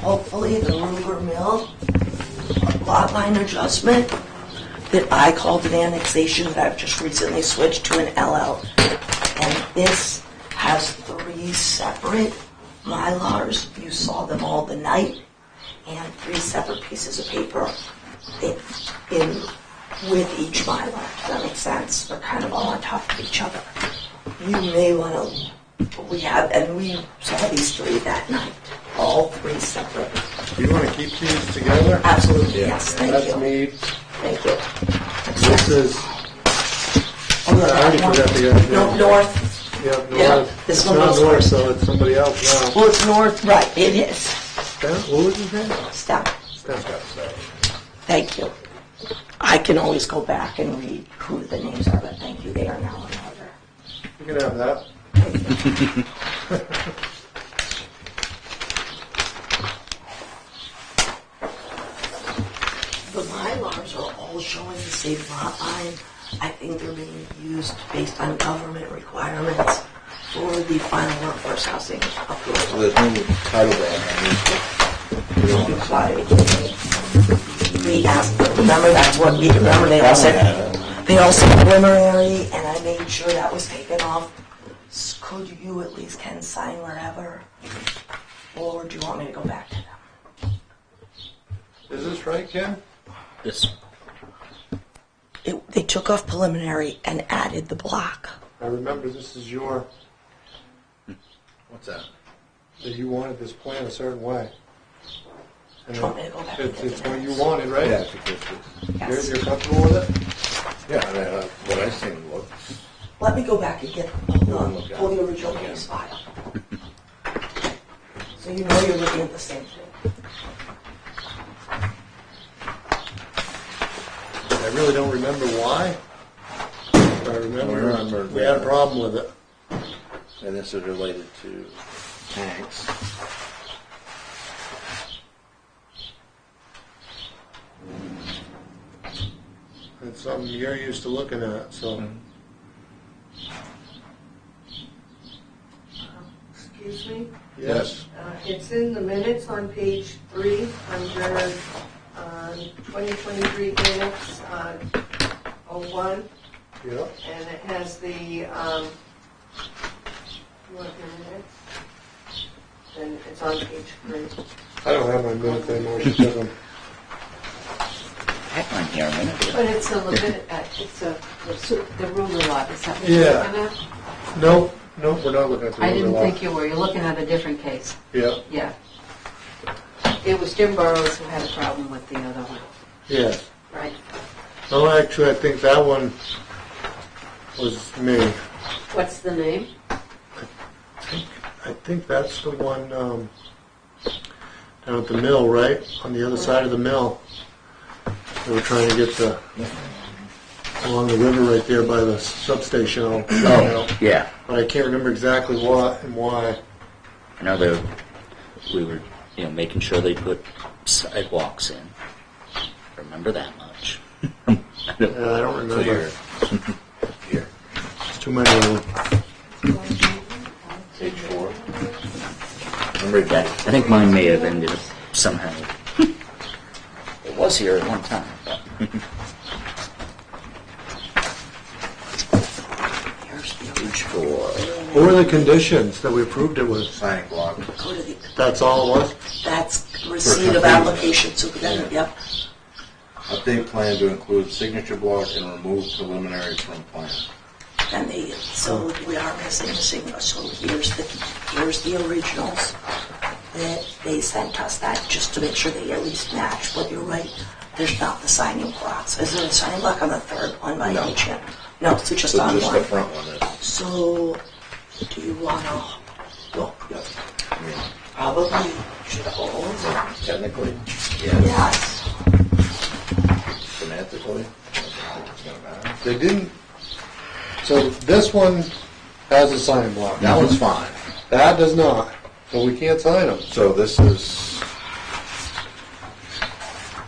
hopefully the rumor mill lot line adjustment that I called an annexation that I've just recently switched to an LL. And this has three separate Mylars. You saw them all the night. And three separate pieces of paper in, in with each Mylar. Does that make sense? They're kind of all on top of each other. You may want to, we have, and we saw these three that night. All three separate. You want to keep these together? Absolutely, yes, thank That's you. me. Thank you. This is, I already forgot the other. No, north, Yeah, Yeah, north. this It's one not was- north, so it's somebody else now. well, it's north, right, it is. Stan- What was his name? Stop, Stan got that. thank you. I can always go back and read who the names are, but thank you, they are now in order. You can have that. The Mylars are all showing the same lot line. I think they're being used based on government requirements for the final workforce housing So approval. there's no title band We asked, remember that's what we, remember they all said, they all said preliminary, and I made sure that was taken off. S- Could you at least can sign wherever? Or do you want me to go back to them? Is this right, Ken? This, It, they took off preliminary and added the block. I remember this is your, what's that? that you wanted this plan a certain way. And Do you want me to go back and It's, get it's the what you minutes? wanted, right? Yeah, it's a good one. You're, Yes. you're comfortable with it? Yeah, I mean, uh, what I seen looks, Let me go back and get the, pull the original Yeah. case file. So you know you're looking at the same thing. I really don't remember why. but I remember, remember. we had a problem with it. and this is related to tanks. It's something you're used to looking at, so. Excuse me, Yes, Uh, it's in the minutes on page three, under uh, 2023 minutes, uh, 01, yeah. and it has the, um, you want the minutes? And it's on page three. I don't have my minutes anymore because I'm I had mine here a minute ago. But it's a Levit, uh, it's a, the ruler lot, is that what Yeah. you're looking at? Nope, nope, we're not looking at the I didn't overlap. think you were, you're looking at a different case, Yeah, yeah. It was Jim Burrows who had a problem with the other one, yeah. right? Oh, actually, I think that one was me. What's the name? I think- I think that's the one, um, down at the mill, right? On the other side of the mill. They were trying to get the, along the river right there by the substation. I'll- Oh, yeah. But I can't remember exactly what and why. I know they we were, you know, making sure they put sidewalks in. Remember that much. I don't- Yeah, I don't remember. Clear. Here, It's too many of them. page four. that, I think mine may have ended up somehow. It was here at one time, but Here's the page four. What were the conditions that we approved it with? Planning block. Go to the, That's all it was? that's receipt of application, so then, yep. Update plan to include signature block and remove preliminary from plan. And they, so we are missing a signature, so here's the, here's the originals that they sent us, that, just to make sure they at least match, but you're right, there's not the signing blocks. Is there a signing block on the third one by any No. chance? No, so just So on just the one. front one is, So, do you wanna look? I mean, Probably should all of them. technically, yeah, Yes. semantically, I don't think it's gonna matter. They didn't, so this one has a sign block. That one's fine. That does not, so we can't sign them. So this is,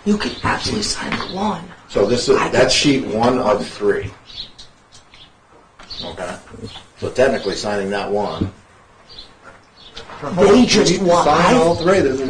You could absolutely sign the one. so this is, that's sheet one of three. Okay, so technically signing that one They just want, I Sign all three, there's a